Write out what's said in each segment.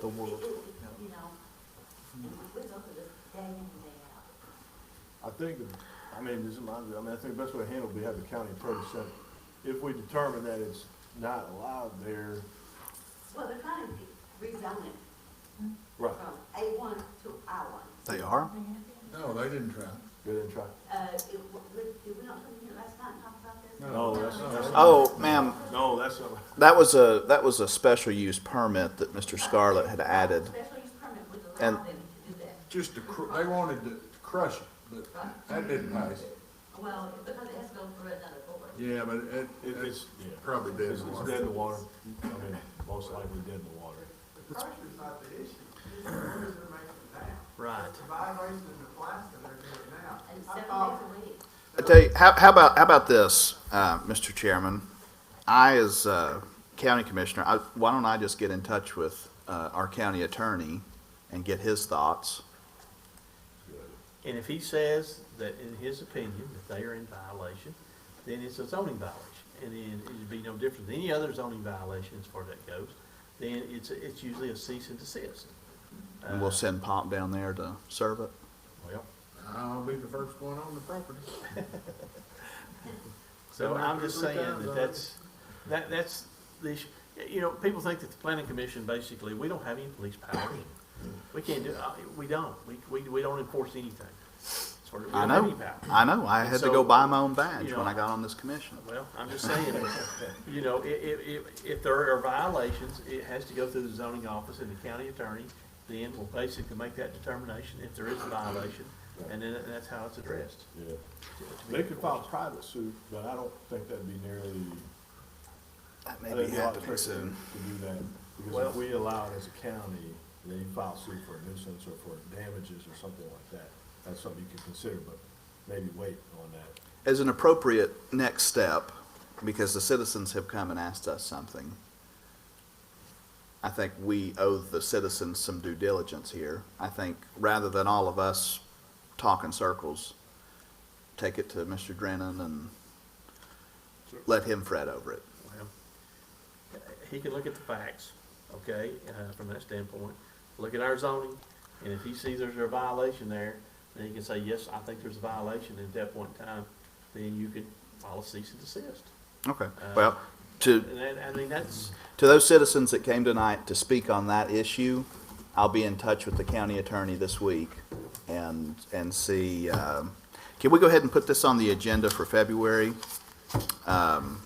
the world. You know, we're going to the day in and day out. I think, the- I mean, this is my, view. I mean, I think the best way to handle it would be have the county approach center. If we determine that it's not allowed there, Well, they're trying to rezone it right, from A one to I one. They are? No, they didn't try. go ahead and try. Uh, it, w- we- did we not come here last night and talk about this? No, that's, that's, Oh, ma'am, no, that's, not- that was a, that was a special use permit that Mr. Scarlett had added. Special use permit would And- allow them to do that. Just to, cr- they wanted to crush it, but that didn't pass. Well, because it has to go through another board. Yeah, but it, it- it's it's, yeah. probably dead It's in the it's water. dead in the water. I mean, most likely dead in the water. Pressure's not the issue, it's the orders they're making now. Right. It's a violation of the class that they're doing now. And I seven thought- days a week. I tell you, how, how about, how about this, uh, Mr. Chairman? I, as, uh, county commissioner, I, why don't I just get in touch with, uh, our county attorney and get his thoughts? And if he says that in his opinion that they are in violation, then it's a zoning violation. And then it'd be no different than any other zoning violation as far as that goes, then it's, it's usually a cease and desist. And we'll send Pop down there to serve it. Well, I'll be the first one on the property. so I'm just saying that that's, that, that's the issue. You know, people think that the planning commission, basically, we don't have any police powers. We can't do, uh, we don't. We, we, we don't enforce anything. Sort of, we I don't have know, any power. I know, I had to go buy my own badge You when I know. got on this commission. Well, I'm just saying, you know, i- i- if, if there are violations, it has to go through the zoning office and the county attorney, then will basically make that determination if there is a violation, and then that's how it's addressed. Yeah. They could file private suit, but I don't think that'd be nearly That I may think be a lot of happening pressure soon. To do that, because Well- if we allow it as a county, then you file suit for a nuisance or for damages or something like that. That's something you can consider, but maybe wait on that. as an appropriate next step, because the citizens have come and asked us something, I think we owe the citizens some due diligence here. I think rather than all of us talk in circles, take it to Mr. Drennan and let him fret over it. Well, He can look at the facts, okay, uh, from that standpoint, look at our zoning, and if he sees there's a violation there, then he can say, yes, I think there's a violation, and at that point in time, then you could file a cease and desist. Okay. Well, to, And that, I mean, that's, to those citizens that came tonight to speak on that issue, I'll be in touch with the county attorney this week and, and see, um, can we go ahead and put this on the agenda for February? um,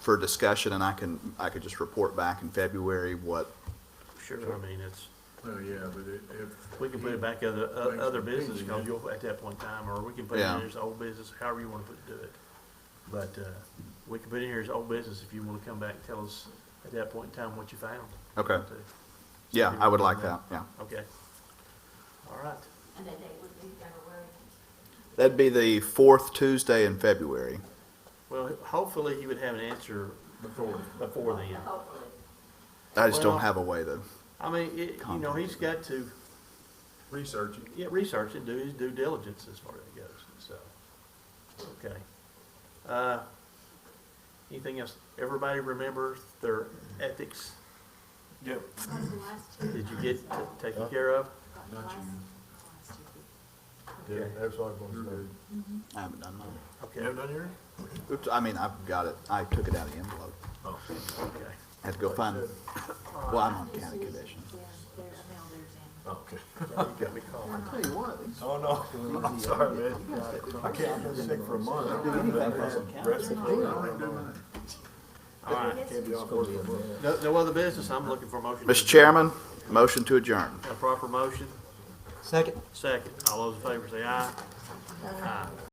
For discussion, and I can, I could just report back in February what, sure, I mean, it's. Well, yeah, but it, if. We can put it back other, Thanks o- for other business, thinking, cause man. you'll, at that point in time, or we can put it Yeah. in here as old business, however you wanna put, do it. But, uh, we can put it in here as old business if you wanna come back and tell us at that point in time what you found. Okay. yeah, I would like that, yeah. Okay. All right, And that date would be February. That'd be the fourth Tuesday in February. well, hopefully you would have an answer Before. before then. Hopefully. I just don't Well- have a way to, I mean, it, you know, he's got to, Research it. yeah, research and do his due diligence as far as it goes, so, okay. Uh, anything else? Everybody remember their ethics? Yep. Got the last two. Did you get t- taken care of? Got the Not last- you. last two. Yeah, Okay. that's all I'm gonna say. I haven't done mine. You Okay, haven't done yours? Oops, I mean, I've got it, I took it out of the envelope. Oh. okay. Had to go find, well, I'm on county commission. Okay. Got me calling. Tell you what, these Oh, no, I'm sorry, man. I can't, I've been sick for a month. I've been All right, Can't be off work for a month. no, no other business, I'm looking for a motion. to Mr. Chairman, motion to adjourn. adjourn. A proper motion, Second. second, all those in favor say aye. Aye.